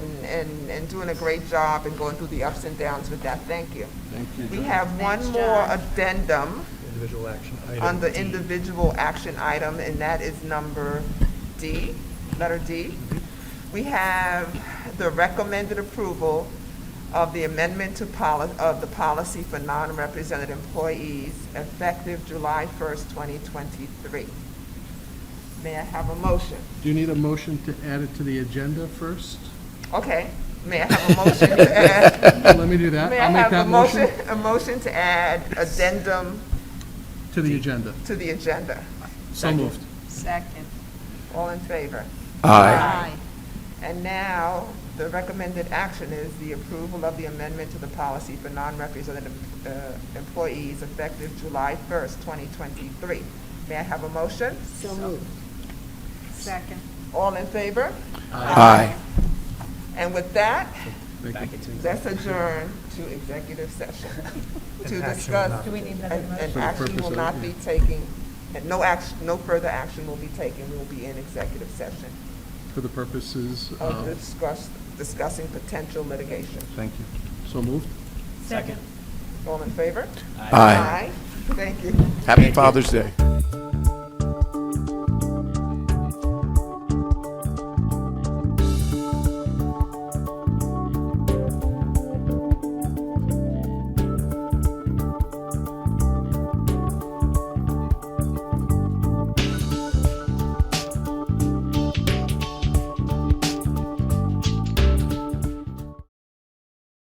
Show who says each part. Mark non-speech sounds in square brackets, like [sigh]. Speaker 1: and, and doing a great job and going through the ups and downs with that. Thank you.
Speaker 2: Thank you.
Speaker 1: We
Speaker 2: John.
Speaker 1: have one
Speaker 3: Thanks,
Speaker 1: more
Speaker 3: John.
Speaker 1: addendum
Speaker 4: Individual action item.
Speaker 1: on the
Speaker 4: D.
Speaker 1: individual action item, and that is number D, letter D. We have the recommended approval of the amendment to poli, of the policy for non-represented employees effective July first, twenty twenty-three. May I have a motion?
Speaker 2: Do you need a motion to add it to the
Speaker 1: [laughs]
Speaker 2: agenda first?
Speaker 1: Okay, may I have a motion to add?
Speaker 2: Let me do that.
Speaker 1: May I
Speaker 2: I'll make
Speaker 1: have a
Speaker 2: that motion
Speaker 1: motion, a motion to add addendum
Speaker 2: to the agenda.
Speaker 1: to the agenda?
Speaker 2: So moved.
Speaker 3: Second.
Speaker 1: All in favor?
Speaker 3: Aye.
Speaker 1: And now, the recommended action is the approval of the amendment to the policy for non-represented uh, employees effective July 1st, 2023. May I have a motion?
Speaker 3: So moved. Second.
Speaker 1: All in favor?
Speaker 5: Aye.
Speaker 1: And with that,
Speaker 2: Thank you.
Speaker 1: let's adjourn to executive session to
Speaker 4: An action will
Speaker 1: discuss.
Speaker 4: not be
Speaker 3: Do we need another
Speaker 1: And
Speaker 3: motion?
Speaker 1: and
Speaker 2: For the
Speaker 1: action
Speaker 2: purpose
Speaker 1: will
Speaker 2: of-
Speaker 1: not be taking, and no action, no further action will be taken. We will be in executive session
Speaker 2: For the purposes
Speaker 1: of
Speaker 2: of,
Speaker 1: discuss, discussing potential litigation.
Speaker 2: thank you. So moved.
Speaker 3: Second.
Speaker 1: All in favor?
Speaker 5: Aye.
Speaker 1: Thank you.
Speaker 5: Happy Father's Day.